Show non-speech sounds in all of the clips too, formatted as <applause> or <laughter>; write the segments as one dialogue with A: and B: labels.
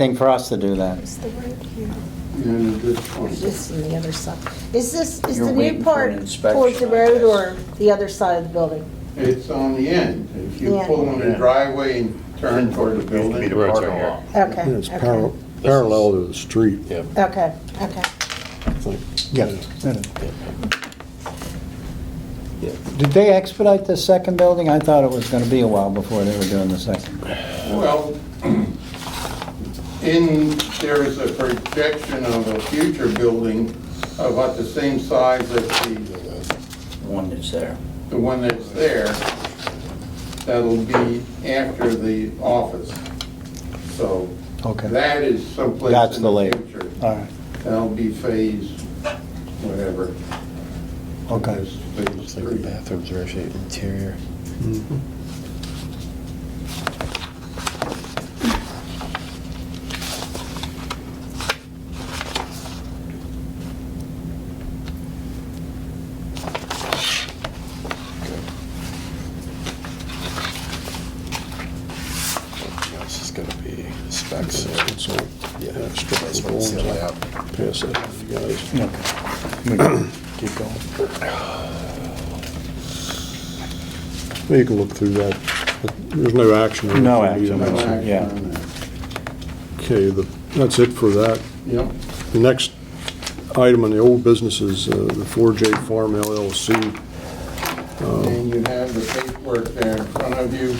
A: thing for us to do that.
B: What's the word here?
C: And a good
B: Is
C: point.
B: this on the other side? Is this, is
D: You're
B: the
D: waiting
B: new
D: for
B: part
D: an inspection,
B: towards the
D: I
B: road
D: guess.
B: or the other side of the building?
C: It's on the end. If you
B: Yeah.
C: pull on the driveway and turn toward the
E: Used to be
C: building.
E: the
F: Right
E: parking
F: there.
E: lot.
B: Okay,
F: Yeah, It's
B: okay,
F: par- parallel to the street.
E: Yeah.
B: okay, okay.
F: I think.
G: Yeah.
E: Yeah.
A: Did they expedite the second building? I thought it was going to be a while before they were doing the second.
C: Well, in, there is a projection of a future building about the same size as the,
D: One that's there.
C: the one that's there. That'll be after the office. So
A: Okay.
C: that is someplace
A: That's
C: in
A: the
C: the
A: layout.
C: future.
A: All right,
C: That'll be phase, whatever.
A: okay.
C: Phase three.
E: bathrooms are actually interior.
F: This is
E: Gonna be specs.
F: It's all
E: Yeah.
F: extra
E: That's what it's layout.
F: pass it to you guys.
A: Okay. We can Keep going.
F: Well, You can look through that. There's no action. on
A: No
F: it. You
A: action,
F: don't have to.
A: Yeah.
C: on that.
F: Okay, the- that's it for that.
C: Yep.
F: The next item on the old business is uh, the 4J Farm LLC.
C: And you have the paperwork there in front of you.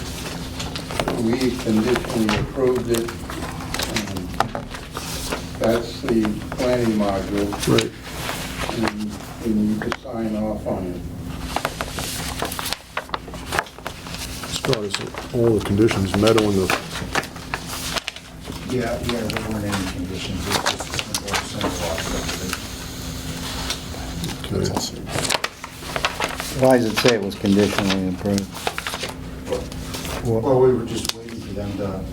C: We conditionally approved it. Um, That's the planning module,
F: Right.
C: and you need to sign off on it.
F: Scott, is it all the conditions met on the
D: Yeah, yeah, there weren't any conditions, it was just a simple, simple lot subdivision.
F: Okay.
A: Why does it say it was conditionally approved?
D: Well, we were just waiting for them to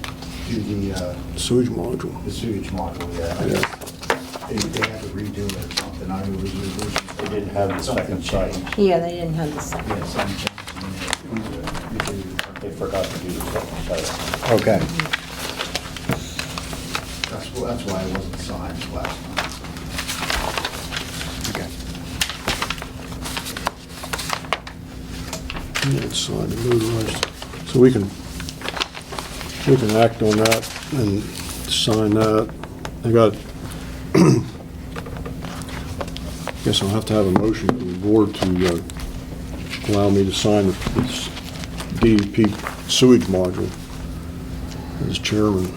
D: do the, uh,
F: sewage module?
D: the sewage model,
F: Yeah.
D: yeah. uh, They, they had to redo it or something, I was,
E: They didn't have the second site.
B: Yeah, they didn't have the second.
D: Yeah, some change.
E: They forgot to do the second site.
A: Okay,
D: That's, wh- that's why it wasn't signed last night.
F: Yeah, it's signed and notarized. So we can, we can act on that and sign that. I got, <clears throat> guess I'll have to have a motion from the board to uh, allow me to sign this DEP sewage module as chairman.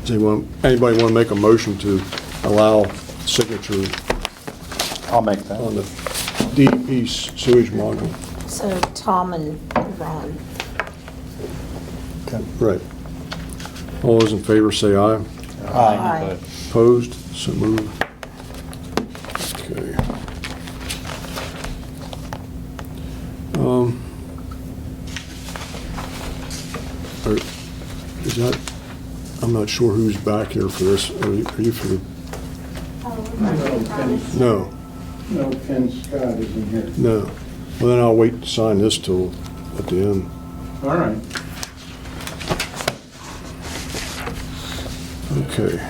F: Does anyone, anybody want to make a motion to allow signature
A: I'll make
F: on
A: that.
F: the DEP sewage module.
B: So Tom and Ron.
A: Okay.
F: Right. All those in favor say aye.
A: Aye.
B: Aye.
F: Opposed? So moved. Okay. Um, are- Is that, I'm not sure who's back here for this. Are you are you for the,
C: No, Ken-
F: no,
C: No, Ken Scott isn't here.
F: no. Well, then I'll wait to sign this till at the end.
C: All right.
F: Okay.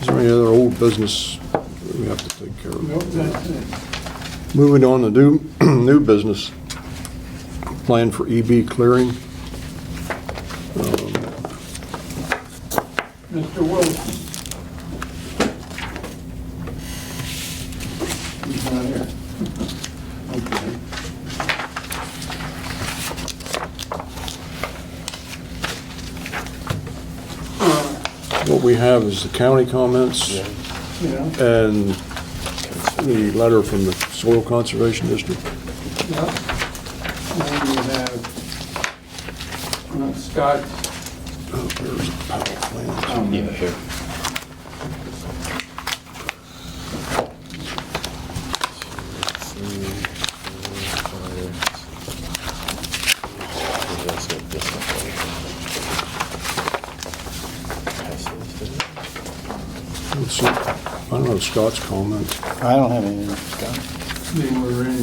F: Is there any other old business that we have to take care
C: Nope,
F: of?
C: that's it.
F: Moving on to new, <clears throat> new business, plan for EB clearing.
C: Mr. Wilson. He's not here. <laughs> Okay.
F: What we have is the county comments
C: Yeah,
F: and the letter from the Soil Conservation District.
C: yeah. And you have uh, Scott's
F: Oh, there's a power plant.
C: comment.
E: here.
F: Let's see. I don't know Scott's comment.
A: I don't have anything.
C: They were in